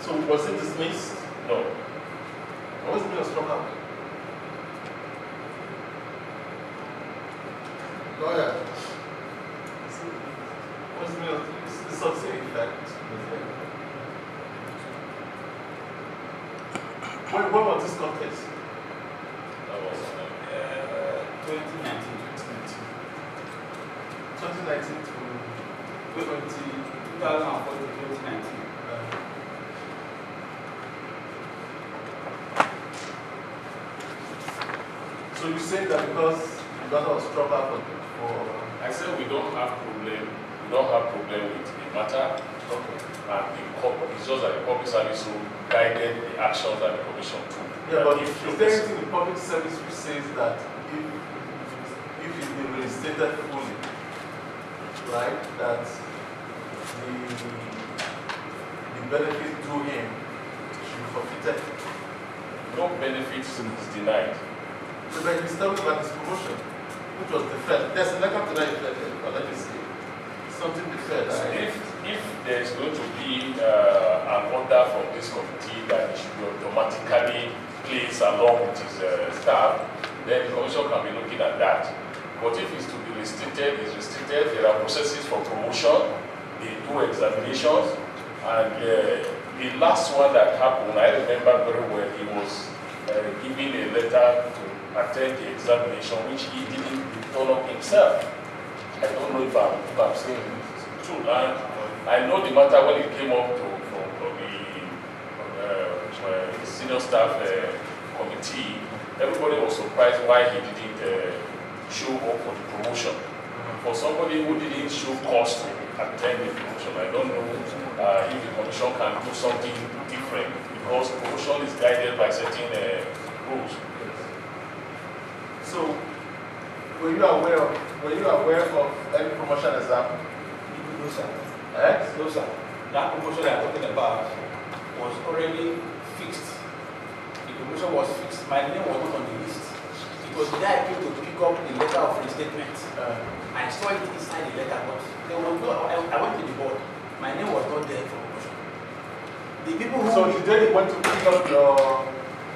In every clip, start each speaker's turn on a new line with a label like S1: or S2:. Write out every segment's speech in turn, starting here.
S1: So was it dismissed? No. What was the strong arm?
S2: Lawyer,
S1: Was the it's such a fact? When, when was this contest?
S3: That was uh,
S1: Uh, 2019. 2019 to 20.
S4: 2014 2019.
S1: So you said that because you got a strong arm for,
S3: I said we don't have problem. We don't have problem with the matter,
S1: for, okay.
S3: and the cop, it's just that the public service rule guided the actions that the commission took.
S1: Yeah, but
S3: If you-
S1: is there anything in public service which says that if, if it's been reinstated fully, right, that the, the benefit to him should be forfeited?
S3: no benefits is denied.
S1: So like he's talking about his promotion, which was deferred. There's a letter to that effect, uh, let me see. Something deferred, right?
S3: If, if there is going to be uh, an order from this committee that it should be automatically placed along with his uh, staff, then the commission can be looking at that. But if it's to be restricted, it's restricted. There are processes for promotion, they do examinations, and uh, the last one that happened, I remember very well, he was uh, giving a letter to attend the examination, which he didn't turn up himself. I don't know if I'm, if I'm saying it true. And I know the matter when it came up to from, from the uh, uh, senior staff uh, committee, everybody was surprised why he didn't uh, show up for the promotion. For somebody who didn't show cause to attend the promotion, I don't know uh, if the commission can do something different because promotion is guided by certain uh, rules.
S1: So, were you aware of, were you aware of any promotion as happened?
S4: No, sir.
S1: Eh?
S4: No, sir. That promotion that I'm talking about was already fixed. The promotion was fixed. My name was not on the list. It was the guy came to pick up the letter of restatement.
S1: Uh,
S4: I saw it inside the letter box. There was no, I, I went to the board. My name was not there for promotion. The people who.
S1: So the day you went to pick up your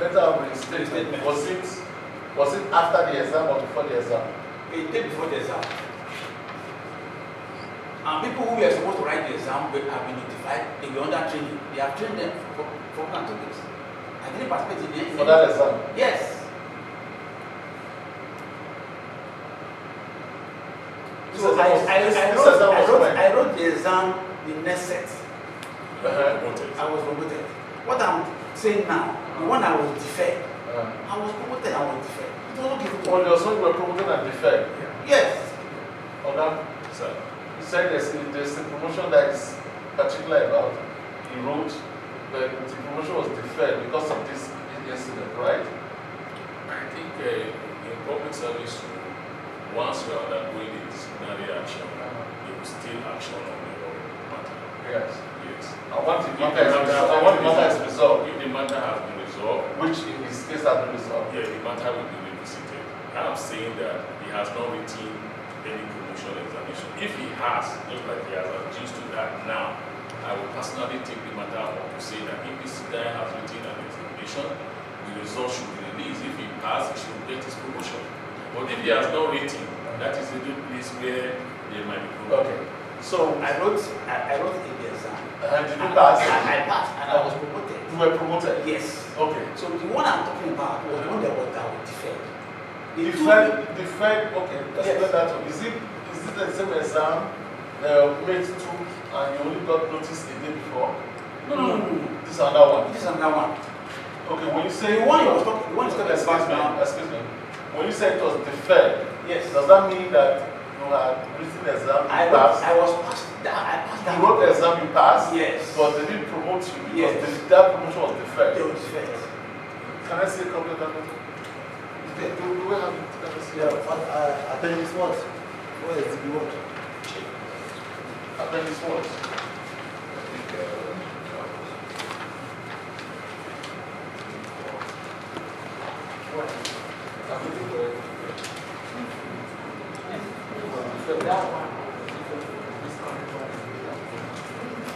S1: letter of reinstatement,
S4: Reinstatement.
S1: was it, was it after the exam or before the exam?
S4: a day before the exam. And people who were supposed to write the exam were have been notified they were under training. They have trained them for for one and two weeks. I didn't participate in any.
S1: For that exam?
S4: Yes.
S1: This
S4: So
S1: exam
S4: I,
S1: was-
S4: I,
S1: this-
S4: I
S1: this
S4: wrote,
S1: exam
S4: I
S1: was
S4: wrote,
S1: when?
S4: I wrote the exam the next set.
S1: Uh-huh.
S3: Promoted.
S4: I was promoted. What I'm saying now, the one I was deferred,
S1: Uh,
S4: I was promoted, I was deferred. It was not given to
S1: well,
S4: me.
S1: there was one you were promoted and deferred.
S4: Yes.
S1: On that,
S3: So,
S1: you said there's, a- there's a promotion that is particular about, you wrote that the promotion was deferred because of this incident, right?
S3: I think uh, in public service, rule, once you are undergoing a disciplinary action, you will still action on your matter.
S1: Yes.
S3: Yes.
S1: I want the
S3: If
S1: matter is resolved, I want the matter is resolved,
S3: If the matter has been resolved,
S1: which in this case has been resolved.
S3: yeah, the matter will be revisited. I'm saying that he has not written any promotion examination. If he has, just like he has accused to that now, I will personally take the matter up to say that if this guy has written an examination, the result should be released. If he passes, he should get his promotion. But if he has not written, that is the good place where there might be problem.
S1: Okay, so,
S4: I wrote, I, I wrote in the exam.
S1: and did you
S4: And
S1: pass?
S4: I, I passed and I was promoted.
S1: You were promoted?
S4: Yes.
S1: Okay.
S4: So the one I'm talking about was the one that was that was deferred. The two-
S1: Deferred, deferred, okay, explain
S4: Yes.
S1: that one. Is it, is it the same exam, uh, mate two, and you only got notice the day before?
S4: No, no, no, no.
S1: This is another one.
S4: This is another one.
S1: Okay, when you say.
S4: The one you was talking, the one you talking
S1: Excuse
S4: about
S1: me, um,
S4: now.
S1: excuse me. When you say it was deferred,
S4: Yes.
S1: does that mean that you had written the exam,
S4: I
S1: you
S4: was,
S1: passed?
S4: I was passed that, I passed
S1: You
S4: that.
S1: wrote the exam, you passed?
S4: Yes.
S1: But they didn't promote you because
S4: Yes.
S1: the- that promotion was
S4: They were
S1: deferred.
S4: deferred.
S1: Can I say a couple of that? Do- Do do we have, can I say?
S5: Yeah, uh, appendix what? Where is the what?
S1: Appendix what?